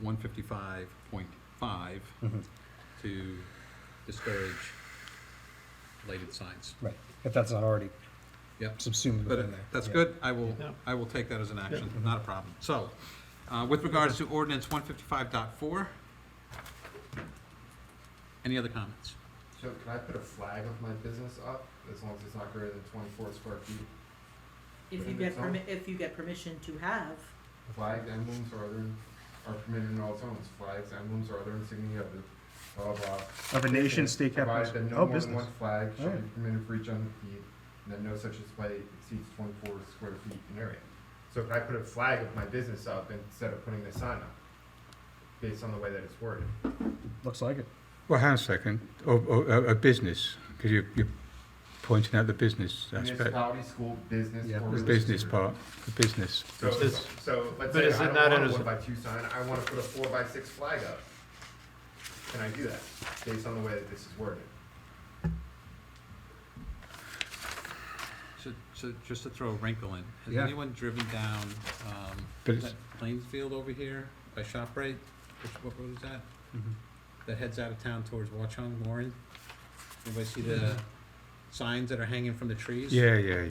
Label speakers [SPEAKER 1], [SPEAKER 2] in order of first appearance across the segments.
[SPEAKER 1] one fifty-five point five
[SPEAKER 2] Mhm.
[SPEAKER 1] to discourage related signs.
[SPEAKER 2] Right, if that's not already
[SPEAKER 1] Yep,
[SPEAKER 2] subsumed
[SPEAKER 1] but
[SPEAKER 2] within
[SPEAKER 1] it-
[SPEAKER 2] there.
[SPEAKER 1] that's
[SPEAKER 2] Yeah.
[SPEAKER 1] good, I will,
[SPEAKER 3] Yeah.
[SPEAKER 1] I will take that as an action, not a problem. So, uh, with regards to ordinance one fifty-five dot four, any other comments?
[SPEAKER 4] So can I put a flag of my business up as long as it's not greater than twenty-four square feet?
[SPEAKER 5] If you
[SPEAKER 4] Within
[SPEAKER 5] get
[SPEAKER 4] the zone?
[SPEAKER 5] permi- if you get permission to have,
[SPEAKER 4] Flags, emblems, or other are permitted in all zones. Flags, emblems, or other insignia of the, of, uh,
[SPEAKER 6] Of a nation, state
[SPEAKER 4] provided
[SPEAKER 6] capital,
[SPEAKER 4] that no
[SPEAKER 6] oh,
[SPEAKER 4] more than
[SPEAKER 6] business.
[SPEAKER 4] one flag shall be
[SPEAKER 2] Alright.
[SPEAKER 4] permitted for each undeed, and that no such display exceeds twenty-four square feet in area. So can I put a flag of my business up instead of putting the sign up, based on the way that it's worded?
[SPEAKER 2] Looks like it.
[SPEAKER 7] Well, hang on a second, or, or a a business, because you, you're pointing out the business aspect,
[SPEAKER 4] Municipality, school, business,
[SPEAKER 2] Yeah,
[SPEAKER 4] or
[SPEAKER 7] the
[SPEAKER 4] religious
[SPEAKER 7] business
[SPEAKER 4] group.
[SPEAKER 7] part, the business.
[SPEAKER 4] So,
[SPEAKER 3] Is-
[SPEAKER 4] so let's
[SPEAKER 3] but
[SPEAKER 4] say
[SPEAKER 3] is
[SPEAKER 4] I
[SPEAKER 3] it
[SPEAKER 4] don't
[SPEAKER 3] not
[SPEAKER 4] want
[SPEAKER 3] in a-
[SPEAKER 4] a one by two sign, I wanna put a four by six flag up. Can I do that, based on the way that this is worded?
[SPEAKER 1] So, so just to throw a wrinkle in, has
[SPEAKER 2] Yeah.
[SPEAKER 1] anyone driven down, um,
[SPEAKER 7] But
[SPEAKER 1] that
[SPEAKER 7] it's-
[SPEAKER 1] Plainsfield over here by ShopRite? Which, what road is that?
[SPEAKER 7] Mm-hmm.
[SPEAKER 1] That heads out of town towards Watchung, Warren? Anybody see the signs that are hanging from the trees?
[SPEAKER 7] Yeah, yeah, yeah.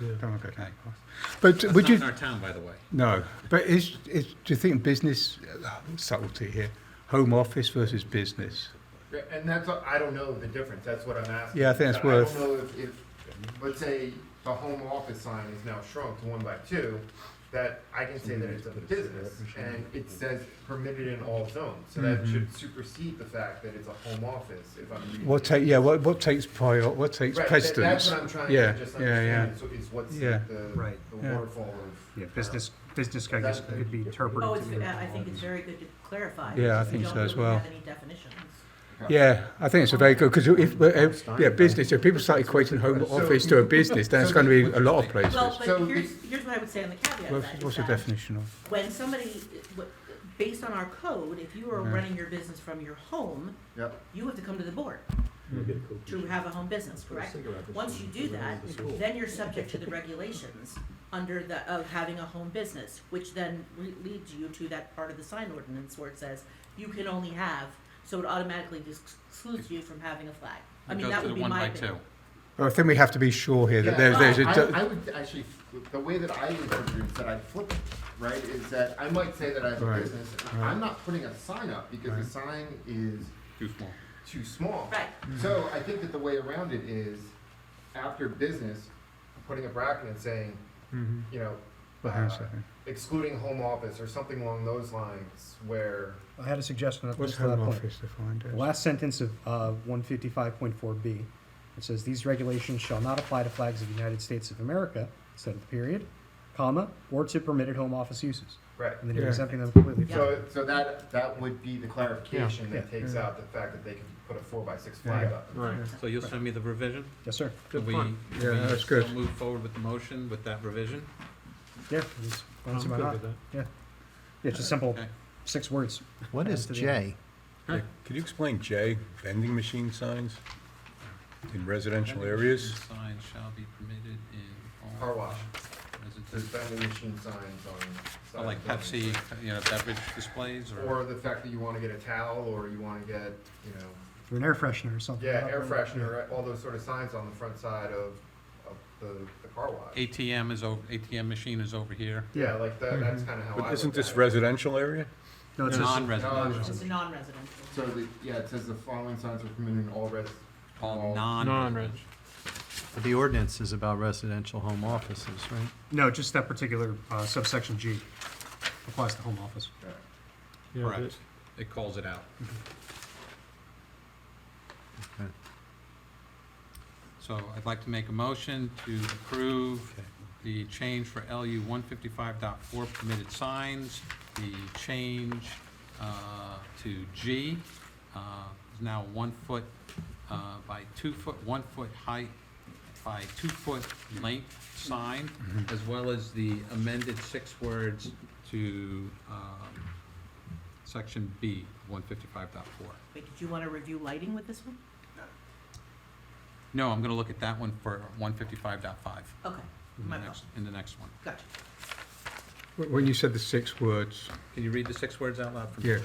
[SPEAKER 4] Yeah.
[SPEAKER 7] Don't want to go that far. But
[SPEAKER 1] That's
[SPEAKER 7] would
[SPEAKER 1] not
[SPEAKER 7] you,
[SPEAKER 1] in our town, by the way.
[SPEAKER 7] no, but is, is, do you think business, uh, subtlety here, home office versus business?
[SPEAKER 4] Yeah, And that's, what- I don't know the difference, that's what I'm asking.
[SPEAKER 7] Yeah, I think that's
[SPEAKER 4] I
[SPEAKER 7] worth-
[SPEAKER 4] don't know if, if, let's say the home office sign is now shrunk to one by two, that I can say that it's a business, and it says permitted in all zones, so that
[SPEAKER 7] Mm-hmm.
[SPEAKER 4] should supersede the fact that it's a home office, if I'm reading.
[SPEAKER 7] What
[SPEAKER 4] it.
[SPEAKER 7] take, yeah, what, what takes prior, what takes
[SPEAKER 4] Right, that- That's
[SPEAKER 7] precedence?
[SPEAKER 4] what I'm trying
[SPEAKER 7] Yeah,
[SPEAKER 4] to just
[SPEAKER 7] yeah, yeah.
[SPEAKER 4] understand, so is what's
[SPEAKER 7] Yeah,
[SPEAKER 4] the, the
[SPEAKER 6] right,
[SPEAKER 4] the
[SPEAKER 7] yeah.
[SPEAKER 4] waterfall of. uh,
[SPEAKER 6] Yeah, business, business, I guess, could be interpreted
[SPEAKER 5] oh,
[SPEAKER 6] to
[SPEAKER 5] it's,
[SPEAKER 6] mean-
[SPEAKER 5] I think it's very good to clarify.
[SPEAKER 7] Yeah, I
[SPEAKER 5] because we
[SPEAKER 7] think
[SPEAKER 5] don't
[SPEAKER 7] so as
[SPEAKER 5] really have
[SPEAKER 7] well.
[SPEAKER 5] any definitions.
[SPEAKER 7] Yeah, I think it's a very good, because if, uh, yeah, business, if people start equating home
[SPEAKER 4] So-
[SPEAKER 7] office to a business, then it's going to be a lot of places.
[SPEAKER 5] Well,
[SPEAKER 4] So
[SPEAKER 5] but here's, here's what I would say on the caveat of
[SPEAKER 7] What's,
[SPEAKER 5] that, is
[SPEAKER 7] what's the
[SPEAKER 5] that
[SPEAKER 7] definition of?
[SPEAKER 5] when somebody, w- based on our code, if you are
[SPEAKER 7] Yeah.
[SPEAKER 5] running your business from your home,
[SPEAKER 4] Yep.
[SPEAKER 5] you have to come to the board
[SPEAKER 8] Hmm.
[SPEAKER 5] to have a home business, correct? Once you do that, then you're subject to the regulations under the, of having a home business, which then re- leads you to that part of the sign ordinance where it says you can only have, so it automatically dis- excludes you from having a flag. I
[SPEAKER 1] It
[SPEAKER 5] mean,
[SPEAKER 1] goes
[SPEAKER 5] that
[SPEAKER 1] to
[SPEAKER 5] would
[SPEAKER 1] the
[SPEAKER 5] be
[SPEAKER 1] one
[SPEAKER 5] my
[SPEAKER 1] by
[SPEAKER 5] opinion.
[SPEAKER 1] two.
[SPEAKER 7] Well, I think we have to be sure here that
[SPEAKER 4] Yeah,
[SPEAKER 7] there's, there's a.
[SPEAKER 4] I-
[SPEAKER 7] do-
[SPEAKER 4] I would actually, the way that I interpret it is that I flip it, right, is that I might say that I have a
[SPEAKER 7] Right,
[SPEAKER 4] business, and
[SPEAKER 7] right.
[SPEAKER 4] I'm not putting a sign up because the
[SPEAKER 7] Right.
[SPEAKER 4] sign is
[SPEAKER 1] Too small.
[SPEAKER 4] too small.
[SPEAKER 5] Right,
[SPEAKER 4] So I think that the way around it is, after business, putting a bracket and saying,
[SPEAKER 2] Mm-hmm.
[SPEAKER 7] Mhm.
[SPEAKER 4] you know,
[SPEAKER 7] Well, hang on a
[SPEAKER 4] uh,
[SPEAKER 7] second.
[SPEAKER 4] excluding home office or something along those lines where,
[SPEAKER 2] I had a suggestion at
[SPEAKER 7] What's
[SPEAKER 2] just to that
[SPEAKER 7] home
[SPEAKER 2] point.
[SPEAKER 7] office defined
[SPEAKER 2] The
[SPEAKER 7] as?
[SPEAKER 2] last sentence of uh, one fifty-five point four B, it says, "These regulations shall not apply to flags of the United States of America," instead of the period, comma, "or to permitted home office uses."
[SPEAKER 4] right.
[SPEAKER 2] And then you're
[SPEAKER 7] Yeah.
[SPEAKER 2] exempting them completely. from-
[SPEAKER 4] So, so that, that would be the clarification that
[SPEAKER 2] Yeah.
[SPEAKER 4] takes
[SPEAKER 7] Yeah.
[SPEAKER 4] out the fact that they can put a four by six flag
[SPEAKER 7] Yeah.
[SPEAKER 4] up.
[SPEAKER 3] Right.
[SPEAKER 1] So you'll send me the revision?
[SPEAKER 2] Yes, sir.
[SPEAKER 1] Can we,
[SPEAKER 6] point.
[SPEAKER 1] can
[SPEAKER 7] Yeah,
[SPEAKER 1] we
[SPEAKER 7] that's
[SPEAKER 1] still
[SPEAKER 7] good.
[SPEAKER 1] move forward with the motion with that revision?
[SPEAKER 2] Yeah. it was- why not? Yeah, It's just simple,
[SPEAKER 1] Okay.
[SPEAKER 2] six words.
[SPEAKER 8] What is
[SPEAKER 2] After the-
[SPEAKER 8] J?
[SPEAKER 1] Huh.
[SPEAKER 9] Could you explain J, vending machine signs in residential
[SPEAKER 1] Vending
[SPEAKER 9] areas?
[SPEAKER 1] machine Signs shall be permitted in all.
[SPEAKER 4] Car wash. There's
[SPEAKER 1] residences.
[SPEAKER 4] vending machine signs
[SPEAKER 1] Or
[SPEAKER 4] on.
[SPEAKER 1] Like
[SPEAKER 4] side of
[SPEAKER 1] Pepsi,
[SPEAKER 4] buildings.
[SPEAKER 1] you know, beverage displays or?
[SPEAKER 4] Or the fact that you wanna get a towel, or you wanna get, you know,
[SPEAKER 2] Or an air freshener or something.
[SPEAKER 4] yeah, air freshener, right, all those sort of signs on the front side of, of the, the car wash.
[SPEAKER 1] ATM is over, ATM machine is over here.
[SPEAKER 4] Yeah, like that, that's kinda how I look
[SPEAKER 9] But isn't this
[SPEAKER 4] at it.
[SPEAKER 9] residential area?
[SPEAKER 2] No, it's just,
[SPEAKER 1] Non-residential,
[SPEAKER 5] it's just a non-residential.
[SPEAKER 4] So the, yeah, it says the following signs are permitted in all res.
[SPEAKER 1] all non-residential.
[SPEAKER 8] But The ordinance is about residential home offices, right?
[SPEAKER 6] no, just that particular uh, subsection G applies to home office.
[SPEAKER 4] Alright.
[SPEAKER 1] Correct. It calls it out.
[SPEAKER 8] Okay.
[SPEAKER 1] So I'd like to make a motion to approve the change for LU 155.4 permitted signs. The change uh, to G uh, is now one foot uh, by two foot, one foot height by two foot length sign, as well as the amended six words to um, section B, 155.4.
[SPEAKER 5] Wait, did you wanna review lighting with this one?
[SPEAKER 1] No, I'm gonna look at that one for 155.5
[SPEAKER 5] Okay,
[SPEAKER 1] in the
[SPEAKER 5] my fault,
[SPEAKER 1] next, Mhm. in the next one.
[SPEAKER 5] gotcha.
[SPEAKER 7] When you said the six words,
[SPEAKER 1] Can you read the six words out loud for me?
[SPEAKER 7] yeah,